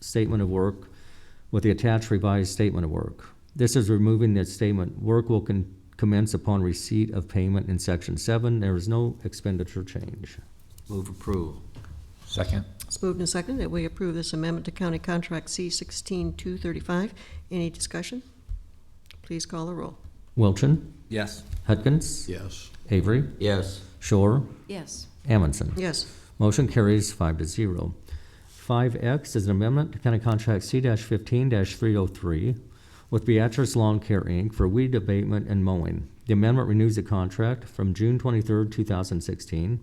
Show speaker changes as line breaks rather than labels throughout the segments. statement of work with the attached revised statement of work. This is removing the statement, work will con- commence upon receipt of payment in section seven. There is no expenditure change.
Move approval.
Second.
It's moved and seconded that we approve this amendment to County Contract C-16-235. Any discussion? Please call the roll.
Wilchin,
Yes.
Hudkins,
Yes.
Avery,
Yes.
Shore,
yes,
Amundson.
Yes,
Motion carries five to zero. Five X is an amendment to County Contract C fifteen three oh three with Beatrice Lawn Care, Inc. for weed abatement and mowing. The amendment renews the contract from June twenty-third, two thousand sixteen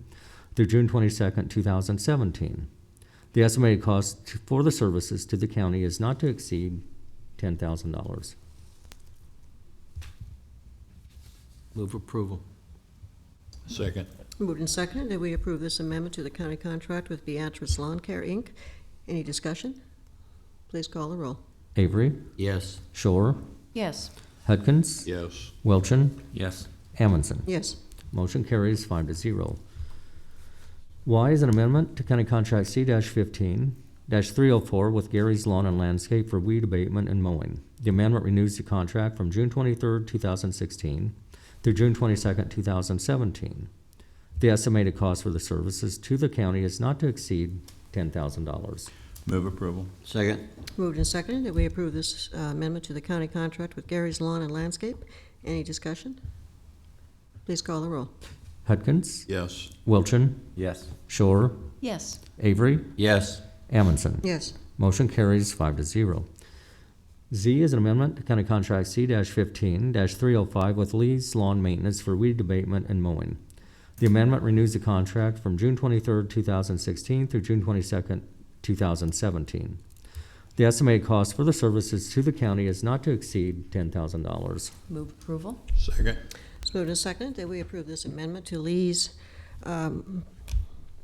through June twenty-second, two thousand seventeen. The estimated cost to- for the services to the county is not to exceed ten thousand dollars.
Move approval.
Second.
moved and seconded that we approve this amendment to the county contract with Beatrice Lawn Care, Inc. Any discussion? Please call the roll.
Avery,
Yes.
Shore,
yes,
Hudkins,
Yes.
Wilchin,
Yes.
Amundson.
Yes,
Motion carries five to zero. Y is an amendment to County Contract C fifteen three oh four with Gary's Lawn and Landscape for weed abatement and mowing. The amendment renews the contract from June twenty-third, two thousand sixteen through June twenty-second, two thousand seventeen. The estimated cost for the services to the county is not to exceed ten thousand dollars.
Move approval.
Second.
moved and seconded that we approve this uh, amendment to the county contract with Gary's Lawn and Landscape. Any discussion? Please call the roll.
Hudkins,
Yes.
Wilchin,
Yes.
Shore,
yes,
Avery,
Yes.
Amundson.
Yes,
Motion carries five to zero. Z is an amendment to County Contract C fifteen three oh five with Lee's Lawn Maintenance for weed abatement and mowing. The amendment renews the contract from June twenty-third, two thousand sixteen through June twenty-second, two thousand seventeen. The estimated cost for the services to the county is not to exceed ten thousand dollars.
move approval,
Second.
It's moved and seconded that we approve this amendment to Lee's um,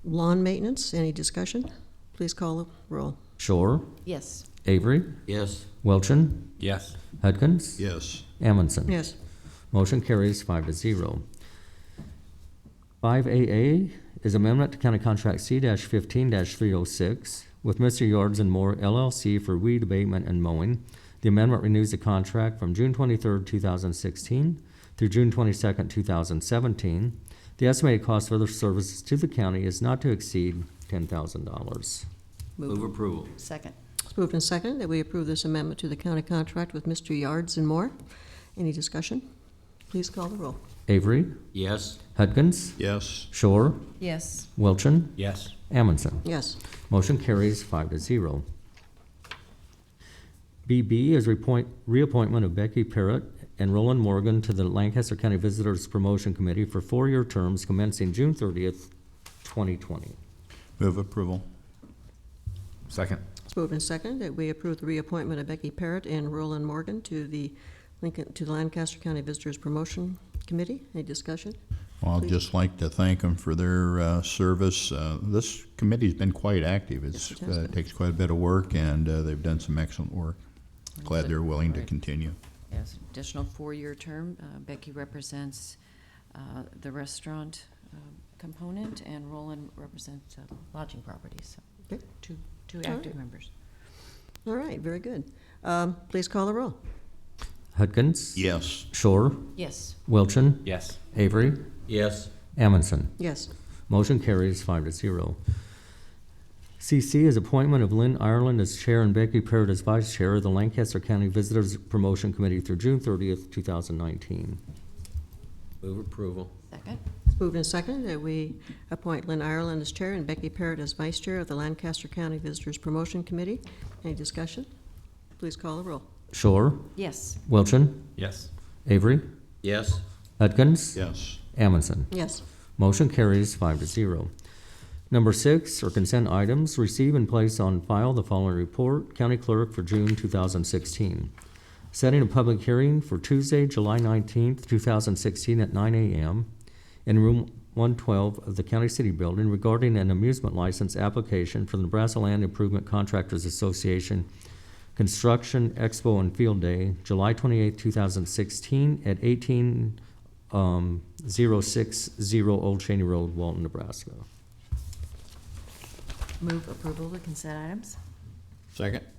lawn maintenance. Any discussion? Please call the roll.
Shore,
yes,
Avery,
Yes.
Wilchin,
Yes.
Hudkins,
Yes.
Amundson.
Yes,
Motion carries five to zero. Five AA is amendment to County Contract C fifteen three oh six with Mr. Yards and More LLC for weed abatement and mowing. The amendment renews the contract from June twenty-third, two thousand sixteen through June twenty-second, two thousand seventeen. The estimated cost for the services to the county is not to exceed ten thousand dollars.
Move approval.
second,
it's moved and seconded that we approve this amendment to the county contract with Mr. Yards and Moore. Any discussion? Please call the roll.
Avery,
Yes.
Hudgens,
Yes.
Shore,
yes,
Wilchin,
Yes.
Amundson.
Yes,
Motion carries five to zero. BB is reappoint, reappointment of Becky Parrott and Roland Morgan to the Lancaster County Visitors Promotion Committee for four-year terms commencing June thirtieth, twenty twenty.
Move approval.
Second.
it's moved and seconded that we approve the reappointment of Becky Parrott and Roland Morgan to the Lincoln, to the Lancaster County Visitors Promotion Committee. Any discussion?
Well, I'd
Please.
just like to thank them for their uh, service. Uh, This committee's been quite active. It's,
Yes, it has
uh,
been.
takes quite a bit of work, and uh, they've done some excellent work. Glad they're willing to
Right.
continue.
yes. Additional four-year term. Uh, Becky represents uh, the restaurant um, component, and Roland represents uh, lodging properties. So
Okay.
Two, two
All
active
right.
members.
All right, very good. Um, Please call the roll.
Hudgens?
Yes.
Shore?
Yes,
Wilchin?
Yes.
Avery?
Yes.
Amundson?
Yes,
Motion carries five to zero. CC is appointment of Lynn Ireland as Chair and Becky Parrott as Vice Chair of the Lancaster County Visitors Promotion Committee through June thirtieth, two thousand nineteen.
Move approval.
second,
It's moved and seconded that we appoint Lynn Ireland as chair and Becky Parrott as vice chair of the Lancaster County Visitors Promotion Committee. Any discussion? Please call the roll.
Shore?
yes,
Wilchin?
Yes.
Avery?
Yes.
Hudgens?
Yes.
Amundson.
Yes,
Motion carries five to zero. Number six are consent items. Receive and place on file the following report, County Clerk for June two thousand sixteen. Setting a public hearing for Tuesday, July nineteenth, two thousand sixteen at nine AM in room one twelve of the County City Building regarding an amusement license application for the Nebraska Land Improvement Contractors Association Construction Expo and Field Day, July twenty-eighth, two thousand sixteen at eighteen um, 060 Old Cheney Road, Walton, Nebraska.
move approval of consent items,
Second.